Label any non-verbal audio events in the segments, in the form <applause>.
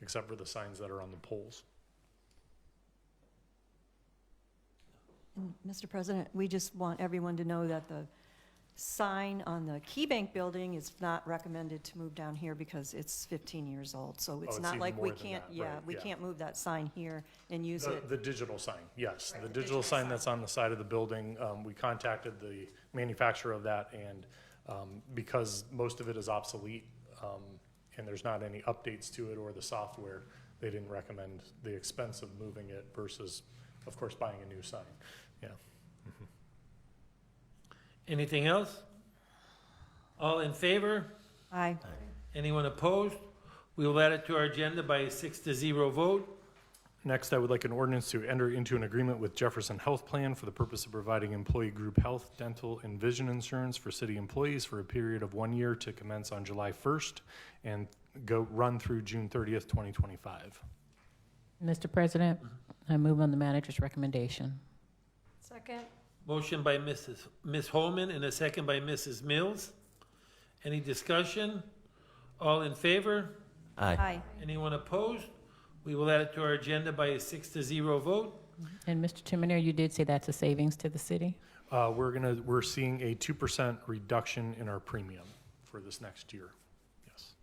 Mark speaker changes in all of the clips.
Speaker 1: except for the signs that are on the poles.
Speaker 2: And, Mr. President, we just want everyone to know that the sign on the Key Bank building is not recommended to move down here because it's 15 years old. So
Speaker 1: Oh,
Speaker 2: it's
Speaker 1: it's
Speaker 2: not
Speaker 1: even
Speaker 2: like we
Speaker 1: more than
Speaker 2: can't,
Speaker 1: that,
Speaker 2: yeah,
Speaker 1: right,
Speaker 2: we
Speaker 1: yeah.
Speaker 2: can't move that sign here and use
Speaker 1: The,
Speaker 2: it.
Speaker 1: the digital sign, yes.
Speaker 3: Right,
Speaker 1: The
Speaker 3: the
Speaker 1: digital
Speaker 3: digital
Speaker 1: sign
Speaker 3: sign.
Speaker 1: that's on the side of the building, um, we contacted the manufacturer of that and, um, because most of it is obsolete, um, and there's not any updates to it or the software, they didn't recommend the expense of moving it versus, of course, buying a new sign. Yeah.
Speaker 4: Anything else? All in favor?
Speaker 2: Aye.
Speaker 4: Anyone opposed? We will add it to our agenda by a six to zero vote.
Speaker 1: Next, I would like an ordinance to enter into an agreement with Jefferson Health Plan for the purpose of providing employee group health, dental, and vision insurance for city employees for a period of one year to commence on July 1st and go, run through June 30th, 2025.
Speaker 5: Mr. President, I move on the manager's recommendation.
Speaker 3: Second?
Speaker 4: Motion by Mrs. Ms. Holman and a second by Mrs. Mills. Any discussion? All in favor?
Speaker 2: Aye.
Speaker 4: Anyone opposed? We will add it to our agenda by a six to zero vote.
Speaker 5: And Mr. Timonier, you did say that's a savings to the city?
Speaker 1: Uh, We're gonna, we're seeing a 2% reduction in our premium for this next year. Yes.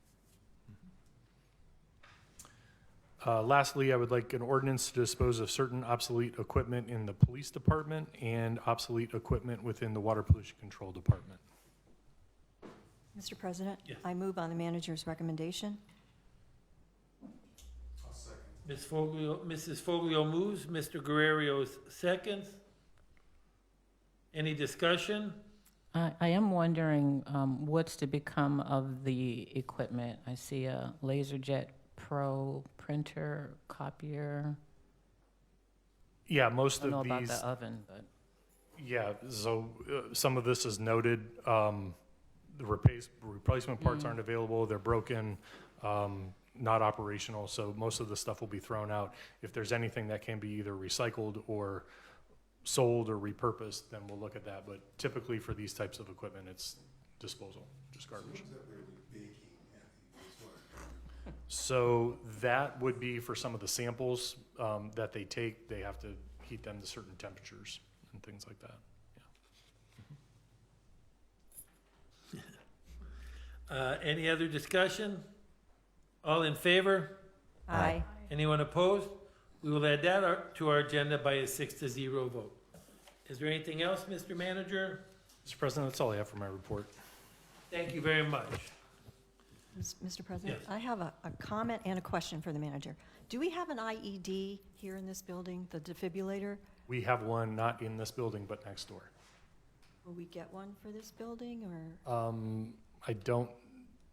Speaker 1: Uh, Lastly, I would like an ordinance to dispose of certain obsolete equipment in the police department and obsolete equipment within the water pollution control department.
Speaker 2: Mr. President?
Speaker 4: Yes.
Speaker 2: I move on the manager's recommendation.
Speaker 4: Ms. Foglio, Mrs. Foglio moves, Mr. Guerrero seconds. Any discussion?
Speaker 5: I, I am wondering um, what's to become of the equipment? I see a LaserJet Pro printer, copier.
Speaker 1: Yeah, most
Speaker 5: I don't know
Speaker 1: of
Speaker 5: about
Speaker 1: these,
Speaker 5: the oven, but
Speaker 1: yeah, so uh, some of this is noted. um, The replace- replacement parts aren't available, they're broken, um, not operational, so most of the stuff will be thrown out. If there's anything that can be either recycled or sold or repurposed, then we'll look at that. But typically for these types of equipment, it's disposal, just garbage. So that would be for some of the samples um, that they take, they have to heat them to certain temperatures and things like that.
Speaker 4: Uh, any other discussion? All in favor?
Speaker 2: Aye.
Speaker 4: Anyone opposed? We will add that our- to our agenda by a six to zero vote. Is there anything else, Mr. Manager?
Speaker 1: Mr. President, that's all I have for my report.
Speaker 4: Thank you very much.
Speaker 2: Mis- Mr. President?
Speaker 4: Yes.
Speaker 2: I have a, a comment and a question for the manager. Do we have an IED here in this building, the defibrillator?
Speaker 1: We have one not in this building, but next door.
Speaker 2: Will we get one for this building, or?
Speaker 1: Um, I don't,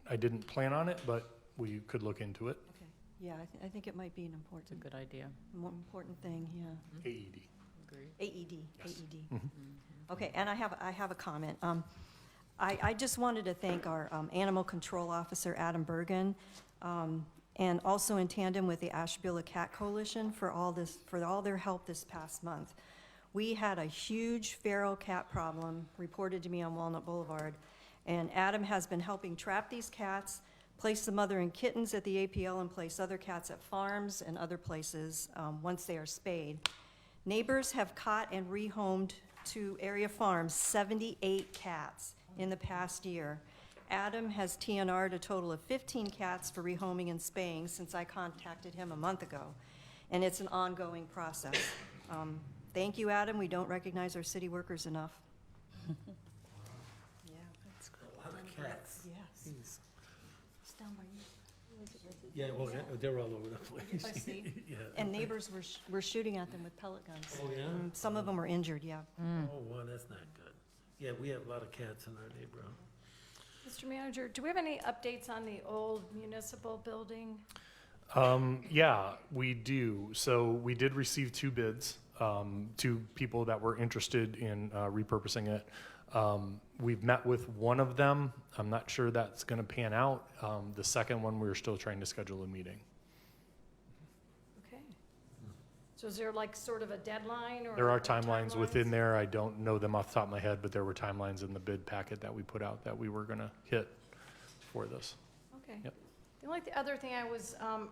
Speaker 1: I didn't plan on it, but we could look into it.
Speaker 2: Okay, yeah, I, thi- I think it might be an
Speaker 5: it's a
Speaker 2: important,
Speaker 5: good idea.
Speaker 2: more important thing, yeah.
Speaker 1: AED.
Speaker 5: Agreed.
Speaker 2: AED,
Speaker 1: Yes.
Speaker 2: AED. E Mm-hmm. Okay, and I have, I have a comment. Um, I, I just wanted to thank our um, Animal Control Officer, Adam Bergen, um, and also in tandem with the Ashbilla Cat Coalition for all this, for all their help this past month. We had a huge feral cat problem reported to me on Walnut Boulevard, and Adam has been helping trap these cats, place the mother and kittens at the APL, and place other cats at farms and other places um, once they are spayed. Neighbors have caught and rehomed to area farms 78 cats in the past year. Adam has TNR'd a total of 15 cats for rehoming and spaying since I contacted him a month ago, and it's an ongoing process. <coughs> Um, Thank you, Adam, we don't recognize our city workers enough. <laughs> Yeah,
Speaker 4: A lot of cats.
Speaker 2: yes.
Speaker 4: Yeah, well, they're all over the place.
Speaker 2: I see.
Speaker 4: <laughs> Yeah.
Speaker 2: And neighbors were sh- were shooting at them with pellet guns.
Speaker 4: Oh, yeah?
Speaker 2: Mm, Some of them were injured, yeah.
Speaker 4: Oh, wow, that's not good. Yeah, we have a lot of cats in our neighborhood.
Speaker 3: Mr. Manager, do we have any updates on the old municipal building?
Speaker 1: Um, yeah, we do. So we did receive two bids, um, two people that were interested in uh, repurposing it. Um, we've met with one of them. I'm not sure that's going to pan out. Um, the second one, we're still trying to schedule a meeting.
Speaker 3: Okay. So is there like sort of a deadline or?
Speaker 1: There are
Speaker 3: or
Speaker 1: timelines within
Speaker 3: timelines?
Speaker 1: there. I don't know them off the top of my head, but there were timelines in the bid packet that we put out that we were going to hit for this.
Speaker 3: Okay.
Speaker 1: Yep.
Speaker 3: The only th- other thing I was, um,